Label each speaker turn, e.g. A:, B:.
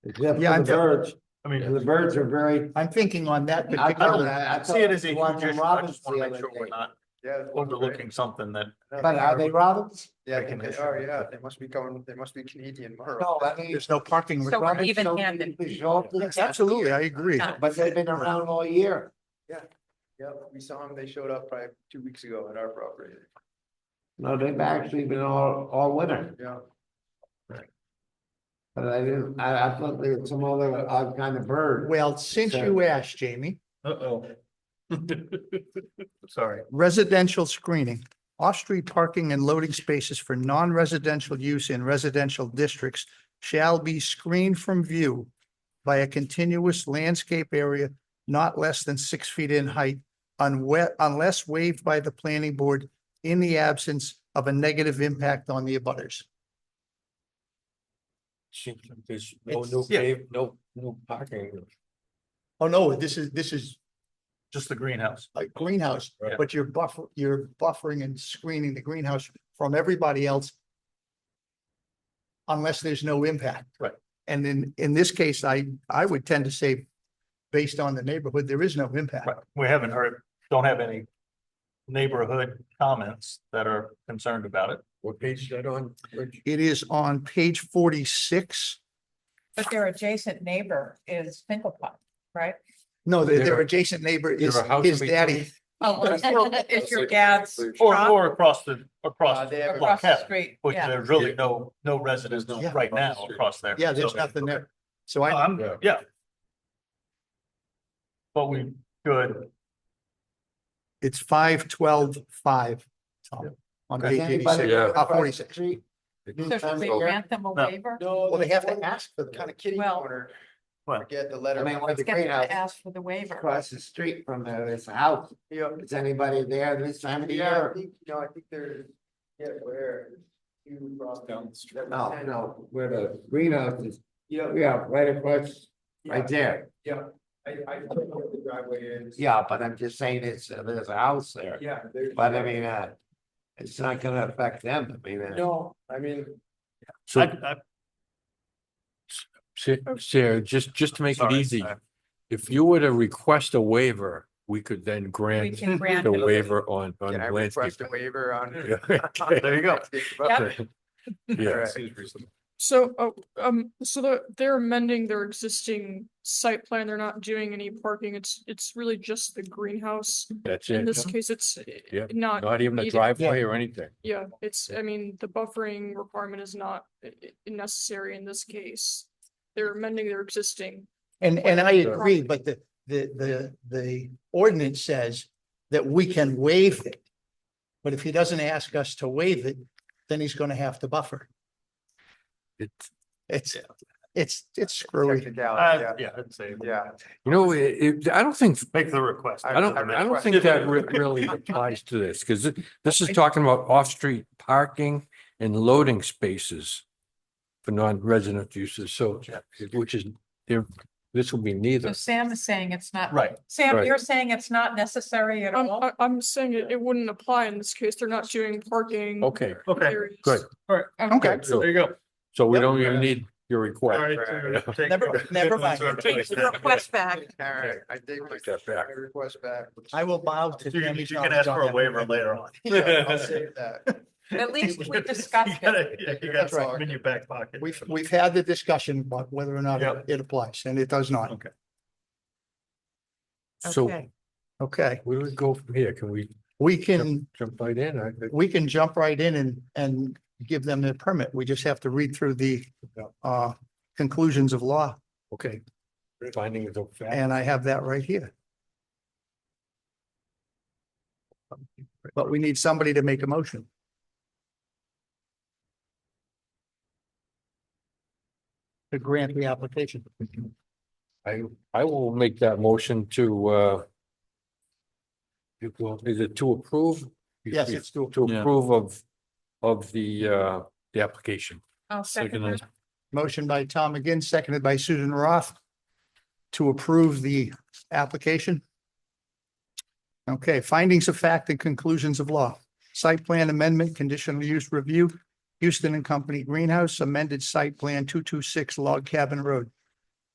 A: Except
B: Yeah,
A: for the
B: I'm-
A: birds,
C: I mean,
A: the birds are very.
B: I'm thinking on that
A: I- I don't-
B: particular,
A: I
C: see it as a
A: thought
C: huge
A: the
C: issue. I
A: robins
C: just want
A: the
C: to
A: other
C: make sure we're
A: day.
C: not
D: Yeah.
C: overlooking something that.
B: but are they robins?
D: Yeah, uh, I
C: Like
D: think
C: an
D: they are,
C: issue.
D: yeah, they must be going, they must be Canadian.
B: No, I mean.
E: There's no parking.
B: with
F: So we're
B: robins,
F: even-handed.
B: we resolve this.
E: Absolutely, I agree.
F: Yeah.
B: But they've been around all year.
D: Yeah, we saw them, they showed up probably two weeks ago at our property,
A: No, they've actually been all, all winter,
D: yeah.
A: but I didn't, I, I thought there was some other odd kind of bird.
E: Well, since
A: So-
E: you asked, Jamie,
C: Uh-oh. Sorry.
E: residential screening, off-street parking and loading spaces for non-residential use in residential districts shall be screened from view by a continuous landscape area not less than six feet in height unwe- unless waived by the planning board in the absence of a negative impact on the abutters.
G: There's no
E: It's-
G: new
C: yeah.
G: pave, no new parking.
E: Oh, no, this is, this is
C: Just the greenhouse.
E: a greenhouse,
G: Right.
E: but you're buffer, you're buffering and screening the greenhouse from everybody else. Unless there's no impact.
C: Right.
E: And in, in this case, I, I would tend to say, based on the neighborhood, there is no impact.
C: Right. We haven't heard, don't have any neighborhood comments that are concerned about it.
G: What page is that on? Rich?
E: It is on page forty-six.
F: But their adjacent neighbor is Finklepot, right?
E: No, their, their
G: There-
E: adjacent neighbor
G: there
E: is
G: a house in
E: his daddy.
F: Oh, it's your dad's
C: Or,
F: shop
C: or across the,
D: Uh,
C: across
D: they have a-
C: Well,
F: across the
C: Kevin,
F: street.
C: Which
F: Yeah,
C: there's really no, no residents
G: no
C: right
G: across the
C: now
G: street.
C: across there.
E: Yeah, there's
C: So-
E: nothing there. So
C: Oh,
E: I,
C: I'm,
G: Yeah.
C: yeah. But we could,
E: it's five twelve five. Tom, On
A: Does
E: page
A: anybody
E: eighty-six,
G: Yeah.
A: live
E: uh,
A: across the
E: forty-six.
A: street?
F: So should we
A: No.
F: grant them a waiver?
D: No.
E: Well, they have to ask for the
D: Kind of kitty
F: Well-
D: corner.
C: What?
D: Forget the
A: I
D: letter.
A: mean, one of the
F: Let's get them
A: greenhouses
F: to ask for the waiver.
A: across the street from there, there's a house.
D: Yeah,
A: Is anybody there this time of the
D: yeah, I
A: year?
D: think, no, I think they're, yeah, where? You crossed down the street.
A: No, no, Oh, where the greenhouse is,
D: Yeah,
A: yeah, right across,
D: yeah,
A: right there.
D: yeah, I, I don't know where the driveway is.
A: Oh. Yeah, but I'm just saying it's, uh, there's a house there.
D: Yeah. there's-
A: But I mean, uh, it's not gonna affect them, I mean. uh,
D: No, I mean,
C: I,
G: So,
C: I,
H: Oh.
G: Sa- Sarah, just, just to make it
C: Sorry,
G: easy,
C: sorry.
G: if you were to request a waiver, we could then
F: We
G: grant
F: can grant
G: the
F: it.
G: waiver on, on
D: can I
G: landscape.
D: request a waiver on?
G: There
D: you go.
F: Yep.
G: Yeah.
H: So, oh, um, so the, they're amending their existing site plan, they're not doing any parking, it's, it's really just the greenhouse.
G: That's
H: In this
G: it.
H: case, it's eh,
G: Yeah.
H: not,
G: Not even
H: Yeah.
G: a driveway or anything.
H: yeah, it's, I mean, the buffering requirement is not eh, eh, necessary in this case. They're amending their existing,
E: And, and I agree, but the, the, the, the ordinance says that we can waive it. But if he doesn't ask us to waive it, then he's gonna have to buffer.
G: It's,
E: It's, it's, it's screwy.
D: Technicality,
C: I-
D: yeah,
C: yeah, I'd say,
D: yeah.
G: you know, it, it- I don't think
C: make the request.
G: I don't, I don't think that re- really applies to this, because this is talking about off-street parking and loading spaces for non-resident uses, so, which is, there, this will be
F: So
G: neither.
F: Sam is saying it's not,
C: Right,
F: Sam,
G: Right.
F: you're saying it's not necessary at
H: I'm,
F: all?
H: I- I'm saying it, it wouldn't apply in this case, they're not doing parking.
G: Okay,
C: okay,
H: areas.
G: good.
F: uh,
E: Okay.
G: so-
C: there you go.
G: so we don't even need your request.
E: Never- never mind.
F: Take the request back.
D: All right, I think.
G: Take that back.
D: my Request back.
E: I will bow to.
C: You can,
E: Tammy
C: you can
E: Johns
C: ask
E: on
C: for a
E: that.
C: waiver later on.
D: Yeah, I'll save that.
F: At least we
C: You
F: discussed it.
C: gotta- yeah, You got
E: That's right.
C: something in your back pocket.
E: We've, we've had the discussion about whether or not
C: Yep.
E: it applies, and it does not.
C: Okay.
G: So
F: Okay.
C: Mm-hmm.
E: Okay,
G: where do we go from here? Can we
E: we can,
G: jump right in? I think-
E: we can jump right in and, and give them their permit. We just have to read through the, uh, conclusions of law,
G: Okay. Finding it of fact.
E: and I have that right here. But we need somebody to make a motion. To grant the application.
G: I, I will make that motion to, uh, it will- is it to approve?
E: Yes, it's to
G: To
C: Yeah.
G: approve of, of the, uh, the application.
F: I'll second that.
G: Second.
E: Motion by Tom McGinn, seconded by Susan Roth to approve the application. Okay, findings of fact and conclusions of law. Site plan amendment, conditional use review, Houston and Company Greenhouse, amended site plan two two six Log Cabin Road.